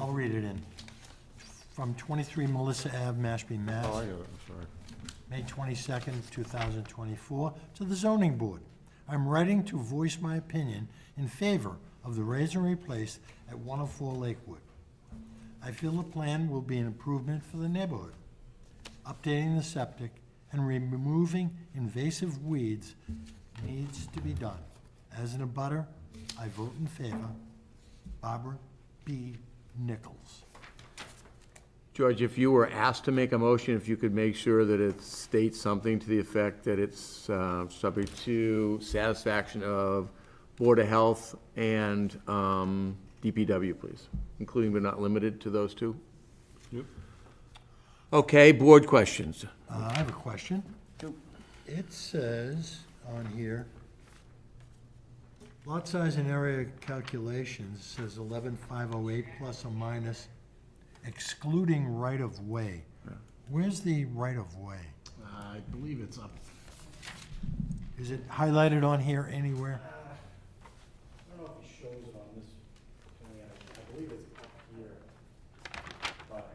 I'll read it in. From 23 Melissa Ave, Mashpee, Mass. Oh, I got it, I'm sorry. May 22nd, 2024, to the zoning board. I'm writing to voice my opinion in favor of the raise and replace at 104 Lakewood. I feel the plan will be an improvement for the neighborhood. Updating the septic and removing invasive weeds needs to be done. As an abutter, I vote in favor. Barbara B. Nichols. George, if you were asked to make a motion, if you could make sure that it states something to the effect that it's uh, subject to satisfaction of Board of Health and um, DPW, please, including but not limited to those two? Yep. Okay, board questions. Uh, I have a question. It says on here, lot size and area calculations says eleven five oh eight plus or minus excluding right of way. Where's the right of way? Uh, I believe it's up. Is it highlighted on here anywhere? I don't know if he shows it on this, plan. I believe it's up here, but.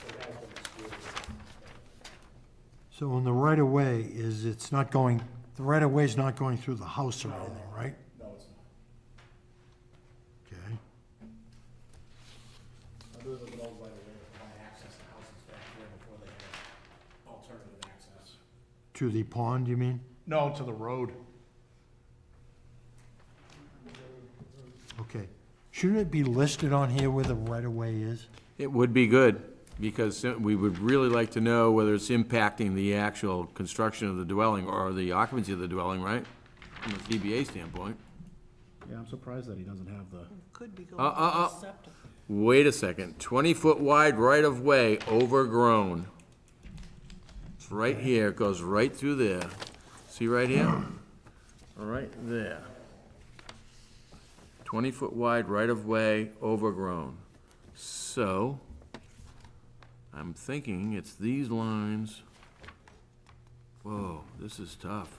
So that's what it's doing. So on the right of way is, it's not going, the right of way's not going through the house or anything, right? No, it's not. Okay. Those are the ones by the way, that had access to houses back here before they had alternative access. To the pond, you mean? No, to the road. Okay. Shouldn't it be listed on here where the right of way is? It would be good, because we would really like to know whether it's impacting the actual construction of the dwelling or the occupancy of the dwelling, right? From a CBA standpoint. Yeah, I'm surprised that he doesn't have the. Could be going Uh, uh, to uh. septic. Wait a second, twenty-foot wide right-of-way overgrown. It's right here, it goes right through there. See right here? Right there. Twenty-foot wide right-of-way overgrown. So, I'm thinking it's these lines. Whoa, this is tough.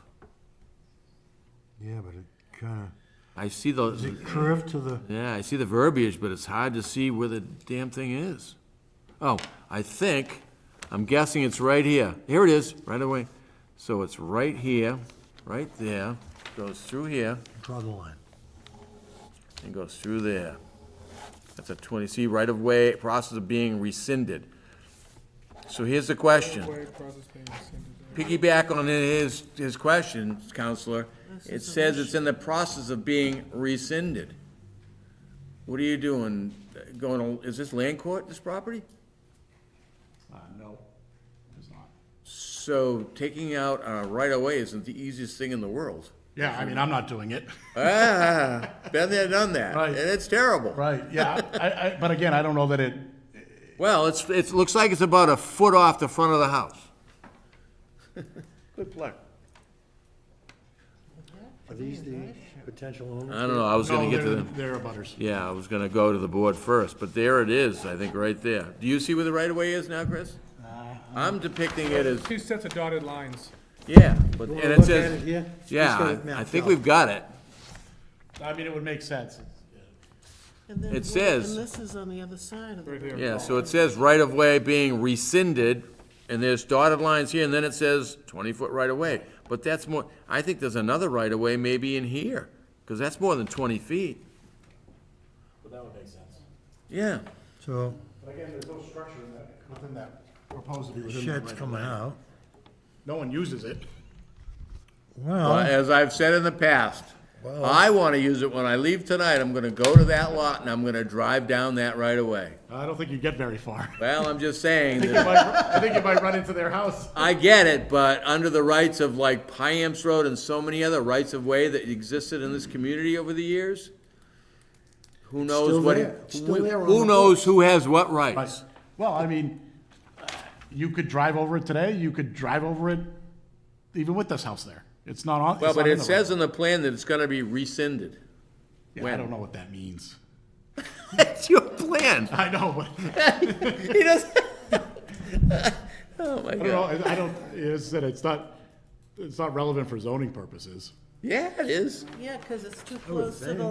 Yeah, but it kinda. I see the. Is it curved to the, Yeah, I see the verbiage, but it's hard to see where the damn thing is. Oh, I think, I'm guessing it's right here. Here it is, right away. So it's right here, right there, goes through here, draw the line? and goes through there. That's a twenty, see, right of way, process of being rescinded. So here's the question. Piggyback on his, his question, Counselor. It says it's in the process of being rescinded. What are you doing? Going, to- is this land court, this property? Uh, no, it's not. So taking out a right of way isn't the easiest thing in the world. Yeah, I mean, I'm not doing it. Ah, been there, done that, Right. and it's terrible. Right, yeah, I, I, but again, I don't know that it, Well, it's, it looks like it's about a foot off the front of the house. Good luck. Are these the potential owners? I don't know, I was gonna no, get to they're, the, they're abutters. yeah, I was gonna go to the board first, but there it is, I think, right there. Do you see where the right of way is now, Chris? I'm depicting it as, Two sets of dotted lines. yeah, but, You wanna look and it at it says, here? Just get yeah, it I- I mapped think out. we've got it. I mean, it would make sense. And then It one- says- And this is on the other side of the. Right here. Yeah, so it says right of way being rescinded, and there's dotted lines here, and then it says twenty foot right of way. But that's more, I think there's another right of way maybe in here, because that's more than twenty feet. But that would make sense. Yeah, So But again, there's no structure in that, Within that proposed. the shed's coming out. No one uses it. Well, Well, as I've said in the past, Well- I wanna use it when I leave tonight, I'm gonna go to that lot and I'm gonna drive down that right of way. I don't think you get very far. Well, I'm just saying You that might- I think you might run into their house. I get it, but under the rights of like Piamps Road and so many other rights of way that existed in this community over the years, who Still knows what, there. It's still there on who the knows who has what rights? Right. Well, I mean, you could drive over it today, you could drive over it even with this house there. It's not on. Well, it's but not in it the says in the plan that it's gonna be rescinded. Yeah, I when. don't know what that means. That's your plan. I know, but He doesn't. Oh, my I don't know, God. I I don't, it's that it's not, it's not relevant for zoning purposes. Yeah, it is. Yeah, because it's too close to the